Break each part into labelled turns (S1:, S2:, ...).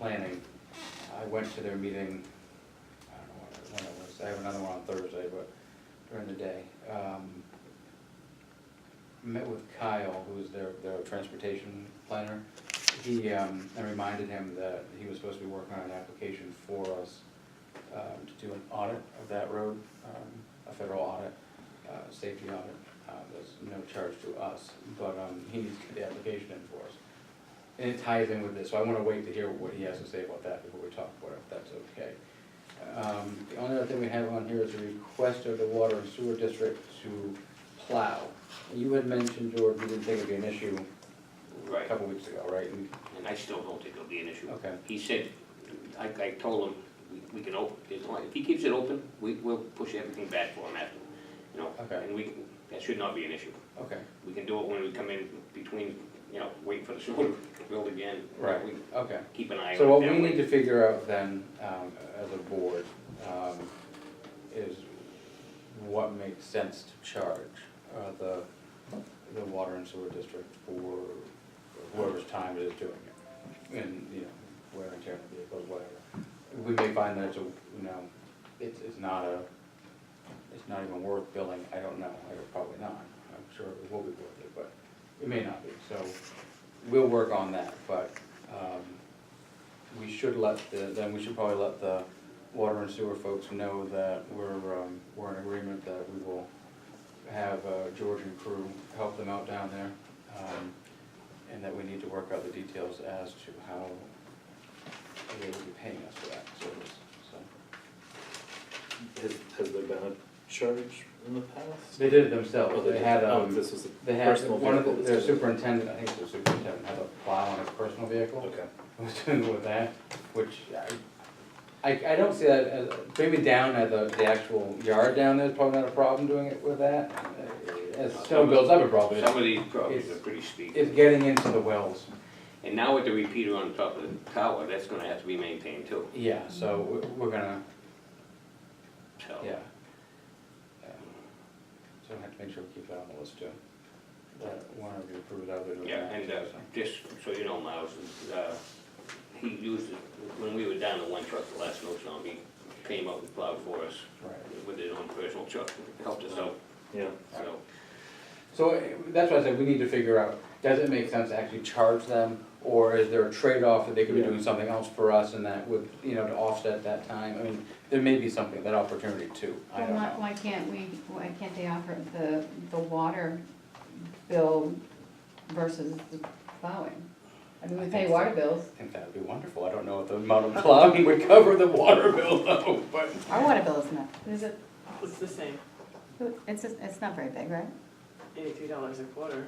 S1: planning, I went to their meeting, I don't know what- when it was, I have another one on Thursday, but during the day. Um, Met with Kyle, who's their, their transportation planner. He, um, I reminded him that he was supposed to be working on an application for us um, to do an audit of that road, um, a federal audit, uh, safety audit. Uh, There's no charge to us, but um, he needs to get the application in for us. And it ties in with this, so I wanna wait to hear what he has to say about that before we talk about it, if that's okay. Um, the only other thing we have on here is a request of the water and sewer district to plow. You had mentioned, George, you didn't think it'd be an issue a
S2: Right,
S1: couple weeks ago, right? And-
S2: and I still don't think it'll be an issue.
S1: Okay,
S2: He said, I, I told him, we- we can open, as long, if he keeps it open, we, we'll push everything back for him after, you know?
S1: Okay.
S2: And we, can- that should not be an issue.
S1: okay,
S2: We can do it when we come in between, you know, wait for the sewer to build again.
S1: Right.
S2: We
S1: okay.
S2: Keep an eye on it.
S1: So what
S2: that
S1: we
S2: way.
S1: need to figure out then, um, as a board, um, is what makes sense to charge, uh, the, the water and sewer district for whoever's time it is doing it. And, you know, wear and tear on the vehicles, whatever. We may find that it's a, you know, it's, it's not a, it's not even worth billing, I don't know, I don't- probably not. I'm sure it will be worth it, but it may not be, so we'll work on that, but, um, we should let the, then we should probably let the water and sewer folks know that we're, um, we're in agreement that we will have, uh, George and crew help them out down there. Um, and that we need to work out the details as to how they will be paying us for that service, so.
S3: Has, has there been a charge in the past?
S1: They did it themselves,
S3: Oh,
S1: they had,
S3: oh,
S1: um,
S3: This was a
S1: they had,
S3: personal
S1: one of
S3: vehicle.
S1: the-
S3: this
S1: their
S3: was-
S1: superintendent, I think it was superintendent, had a plow on his personal vehicle.
S3: Okay,
S1: was doing with that, which I, I, I don't see that, as- maybe down at the, the actual yard down there is probably not a problem doing it with that. Uh, As snow builds up, it probably
S2: Some
S1: is.
S2: of these properties are
S1: It's-
S2: pretty steep.
S1: It's getting into the wells,
S2: And now with the repeater on top of the tower, that's gonna have to be maintained too,
S1: yeah, so we- we're gonna,
S2: so.
S1: yeah. Yeah. So we have to make sure we keep that on the list too. That one of you approve it, other than that.
S2: Yeah, and uh, just so you know, Miles, uh, he used, it when we were down to one truck the last snowstorm, he came up and plowed for us
S1: Right.
S2: with his own personal truck, helped us out,
S3: yeah.
S2: so.
S1: So uh, that's why I said we need to figure out, does it make sense to actually charge them? Or is there a trade-off that they could be
S3: Yeah.
S1: doing something else for us and that would, you know, to offset that time? I mean, there may be something, that opportunity too, I
S4: Well,
S1: don't
S4: why,
S1: know.
S4: why can't we, why can't they offer the, the water bill versus the plowing? I mean,
S1: I
S4: we
S1: think
S4: pay
S1: so.
S4: water bills,
S1: I think that would be wonderful, I don't know if the amount of plowing would cover the water bill though, but.
S4: our water bill is not,
S5: Is it, it's the same,
S4: it's, just- it's not very big, right?
S5: eighty-three dollars a quarter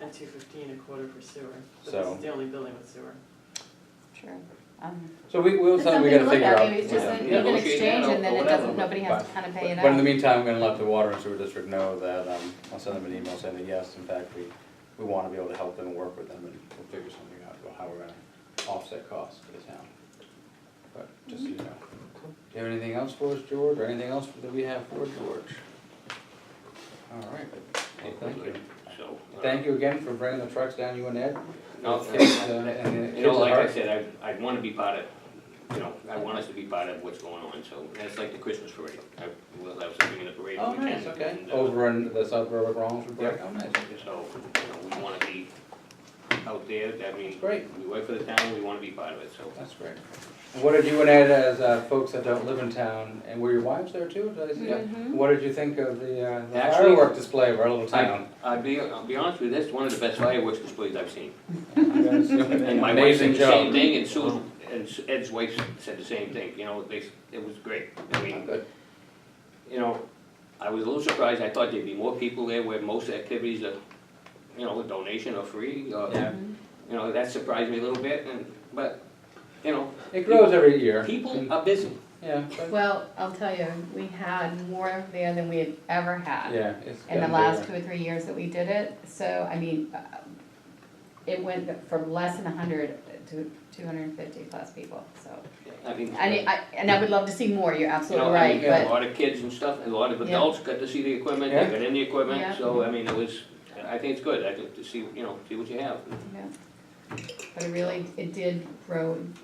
S5: and two fifteen a quarter for sewer. But
S1: So-
S5: this is the only building with sewer.
S4: Sure. Um,
S1: So we, we'll,
S4: It's
S1: something we gotta
S4: something to look
S1: figure
S4: at,
S1: out.
S4: maybe it's just
S1: Yeah.
S4: an,
S2: Yeah.
S4: you can
S2: Negotiate
S4: exchange
S2: that
S4: and then
S2: or
S4: it
S2: whatever,
S4: doesn't, nobody has to kind of pay it
S1: But
S4: out.
S1: but in the meantime, I'm gonna let the water and sewer district know that, um, I'll send them an email saying that yes, in fact, we, we wanna be able to help them and work with them and we'll figure something out about how we're gonna offset costs for the town. But just so you know. Do you have anything else for us, George, or anything else that we have for George? All right, well, thank you.
S2: So. uh,
S1: Thank you again for bringing the trucks down, you and Ed.
S2: No,
S1: It's, uh,
S2: you
S1: and the
S2: know,
S1: kids are
S2: like I
S1: hard.
S2: said, I, I wanna be part of, you know, I want us to be part of what's going on, so that's like the Christmas parade. I, we'll have something in the parade.
S1: Oh,
S2: if we can,
S1: nice, okay.
S2: and, uh,
S1: Over in the suburb of Rollinsford, Breck, oh, nice,
S2: So, you know, we wanna be out there, I mean,
S1: great.
S2: we work for the town, we wanna be part of it, so.
S1: That's great. And What did you and Ed, as uh, folks that don't live in town, and were your wives there too? Did I see that?
S4: Mhm.
S1: What did you think of the uh, the
S2: Actually-
S1: firework display of our little town?
S2: I'll be, I'll be honest with you, that's one of the best fireworks displays I've seen.
S1: You guys did an
S2: And my wife said
S1: Amazing
S2: the same
S1: job. Uh-huh.
S2: thing, and Sue, and Ed's wife said the same thing, you know, they, it was great. I mean,
S1: Good.
S2: you know, I was a little surprised, I thought there'd be more people there where most activities are, you know, donation or free, or,
S1: Yeah.
S2: you know, that surprised me a little bit, and, but, you know,
S1: It grows every year.
S2: people are busy.
S1: Yeah, but-
S4: Well, I'll tell you, we had more there than we had ever had.
S1: yeah. it's
S4: in the
S1: gotten
S4: last two
S1: bigger.
S4: or three years that we did it, so, I mean, uh, it went from less than hundred to two hundred and fifty plus people, so.
S2: I mean,
S4: I mean, I, and I would love to see more, you're
S2: you know, I
S4: absolutely
S2: mean,
S4: right,
S2: you got a
S4: but,
S2: lot of kids and stuff, and a lot of
S4: Yeah.
S2: adults got to see the equipment,
S1: Yeah.
S2: they got in the
S4: Yeah.
S2: equipment, so, I mean, it was, I think it's good, I think, to see, you know, see what you have.
S4: yeah. But it really, it did grow